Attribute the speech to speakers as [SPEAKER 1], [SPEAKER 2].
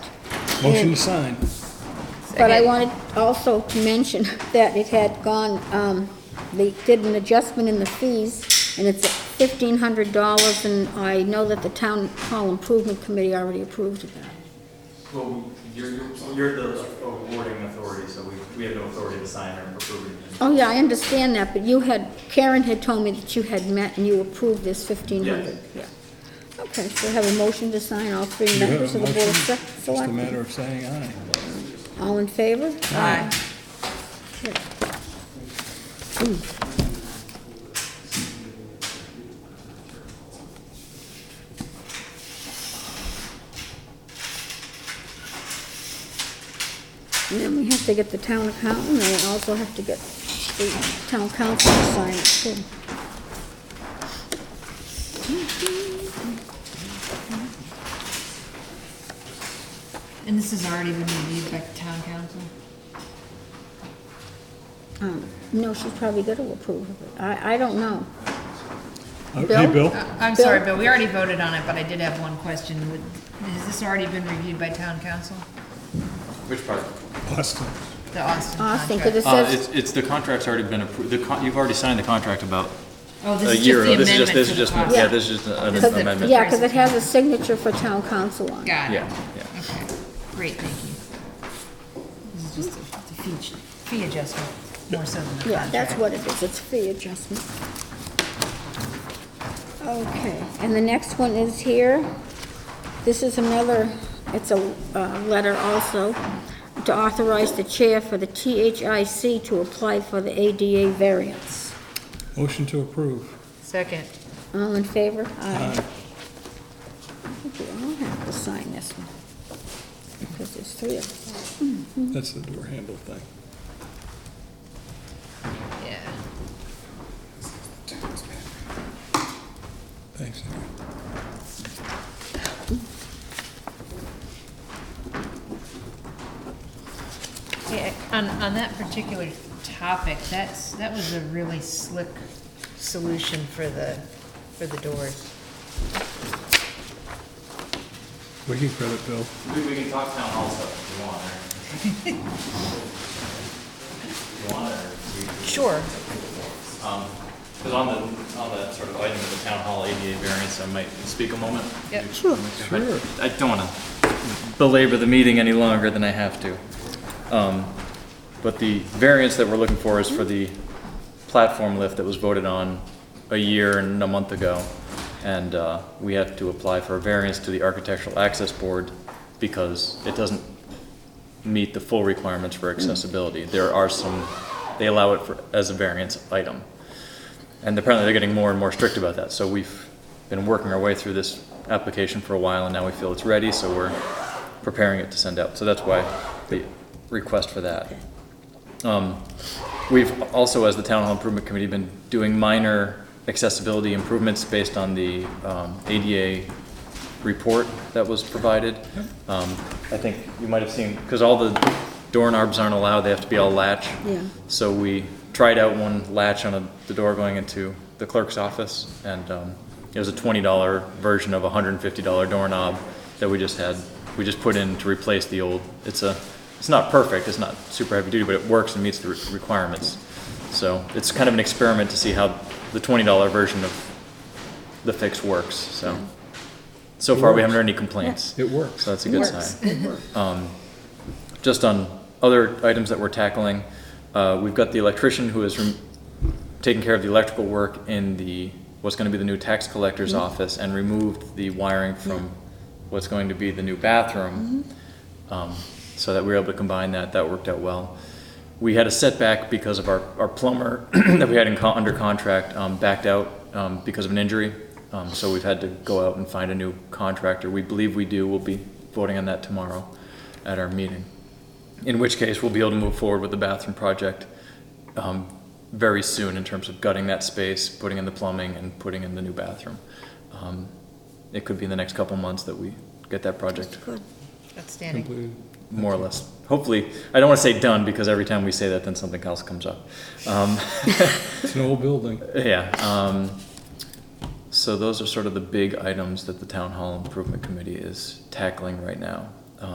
[SPEAKER 1] Motion to sign.
[SPEAKER 2] But I wanted also to mention that it had gone, um, they did an adjustment in the fees, and it's fifteen hundred dollars, and I know that the town hall improvement committee already approved of that.
[SPEAKER 3] Well, we- you're, you're- you're the awarding authority, so we, we have no authority to sign or approve anything.
[SPEAKER 2] Oh, yeah, I understand that, but you had, Karen had told me that you had met and you approved this fifteen hundred. Yeah. Okay, so I have a motion to sign all three
[SPEAKER 1] You
[SPEAKER 2] members
[SPEAKER 1] have a
[SPEAKER 2] of the
[SPEAKER 1] motion?
[SPEAKER 2] board of Se-
[SPEAKER 1] Just a
[SPEAKER 2] selectmen.
[SPEAKER 1] matter of saying aye.
[SPEAKER 2] All in favor?
[SPEAKER 4] Aye.
[SPEAKER 2] Hmm. And then we have to get the town accountant, and we also have to get the town council to sign it, too.
[SPEAKER 4] And this has already been reviewed by town council?
[SPEAKER 2] Um, No, she's probably gonna approve of it. I, I don't know.
[SPEAKER 1] Uh,
[SPEAKER 2] Bill?
[SPEAKER 1] Hey, Bill?
[SPEAKER 4] Uh, I'm
[SPEAKER 2] Bill?
[SPEAKER 4] sorry, but we already voted on it, but I did have one question. Would- Has this already been reviewed by town council?
[SPEAKER 5] Which part?
[SPEAKER 2] Uh.
[SPEAKER 1] Austin.
[SPEAKER 4] The Austin
[SPEAKER 2] Austin, 'cause
[SPEAKER 4] contract?
[SPEAKER 2] Uh, it says,
[SPEAKER 5] Uh, It's, it's, the contract's already been approved, the, con- you've already signed the contract about
[SPEAKER 4] Oh, this
[SPEAKER 5] a
[SPEAKER 4] is just
[SPEAKER 5] year
[SPEAKER 4] the
[SPEAKER 5] ago. This is just, this
[SPEAKER 4] amendment to
[SPEAKER 5] is
[SPEAKER 4] the
[SPEAKER 5] just,
[SPEAKER 4] contract.
[SPEAKER 5] yeah, this is just an
[SPEAKER 4] This is the-
[SPEAKER 5] amendment.
[SPEAKER 2] yeah, because it has a signature for town council on it.
[SPEAKER 4] Got it.
[SPEAKER 5] Yeah, yeah.
[SPEAKER 4] Okay, great, thank you. This is just a it's a fee, ch- fee adjustment, more so than a
[SPEAKER 2] Yeah,
[SPEAKER 4] contract.
[SPEAKER 2] that's what it is, it's fee adjustment. Okay, and the next one is here. This is another, it's a uh, letter also, to authorize the chair for the THIC to apply for the ADA variance.
[SPEAKER 1] Motion to approve.
[SPEAKER 4] Second.
[SPEAKER 2] All in favor? Aye. I think we all have to sign this one, because there's three of us.
[SPEAKER 1] That's the door handle thing.
[SPEAKER 4] Yeah.
[SPEAKER 1] Thanks. Henry.
[SPEAKER 4] Yeah, on, on that particular topic, that's, that was a really slick solution for the, for the doors.
[SPEAKER 1] We can credit Bill.
[SPEAKER 3] We, we can talk town hall stuff if you want, or. If you want, or. we-
[SPEAKER 4] Sure.
[SPEAKER 3] Because on the, on the sort of item of the town hall ADA variance, I might speak a moment.
[SPEAKER 4] Yep.
[SPEAKER 2] Sure.
[SPEAKER 1] Sure.
[SPEAKER 3] I don't want to belabor the meeting any longer than I have to. Um, But the variance that we're looking for is for the platform lift that was voted on a year and a month ago. And uh, we have to apply for a variance to the Architectural Access Board because it doesn't meet the full requirements for accessibility. There are some, they allow it for, as a variance item. And apparently they're getting more and more strict about that. So we've been working our way through this application for a while and now we feel it's ready, so we're preparing it to send out. So that's why the request for that. Um, We've also, as the Town Hall Improvement Committee, been doing minor accessibility improvements based on the um, ADA report that was provided. Um, I think you might have seen, because all the doorknobs aren't allowed, they have to be all latch.
[SPEAKER 2] Yeah.
[SPEAKER 3] So we tried out one latch on a- the door going into the clerk's office, and um, it was a twenty-dollar version of a hundred and fifty-dollar doorknob that we just had, we just put in to replace the old. It's a, it's not perfect, it's not super heavy-duty, but it works and meets the re- requirements. So it's kind of an experiment to see how the twenty-dollar version of the fix works, so. So far, we haven't heard any complaints.
[SPEAKER 1] It works.
[SPEAKER 3] So that's a good sign. Um, Just on other items that we're tackling, uh, we've got the electrician who is rem- taking care of the electrical work in the, what's gonna be the new tax collector's
[SPEAKER 1] Mm-hmm.
[SPEAKER 3] office and removed the wiring from what's going to be the new bathroom.
[SPEAKER 1] Mm-hmm.
[SPEAKER 3] Um, So that we were able to combine that, that worked out well. We had a setback because of our, our plumber that we had in, con- under contract, um, backed out, um, because of an injury. Um, so we've had to go out and find a new contractor. We believe we do. We'll be voting on that tomorrow at our meeting. In which case, we'll be able to move forward with the bathroom project, um, very soon in terms of gutting that space, putting in the plumbing and putting in the new bathroom. Um, It could be in the next couple months that we get that project
[SPEAKER 2] Good.
[SPEAKER 4] Outstanding.
[SPEAKER 1] Completed.
[SPEAKER 3] more or less. Hopefully, I don't want to say done because every time we say that, then something else comes up. Um,
[SPEAKER 1] It's an old building.
[SPEAKER 3] yeah. Um, so those are sort of the big items that the town hall improvement committee is tackling right now. Um,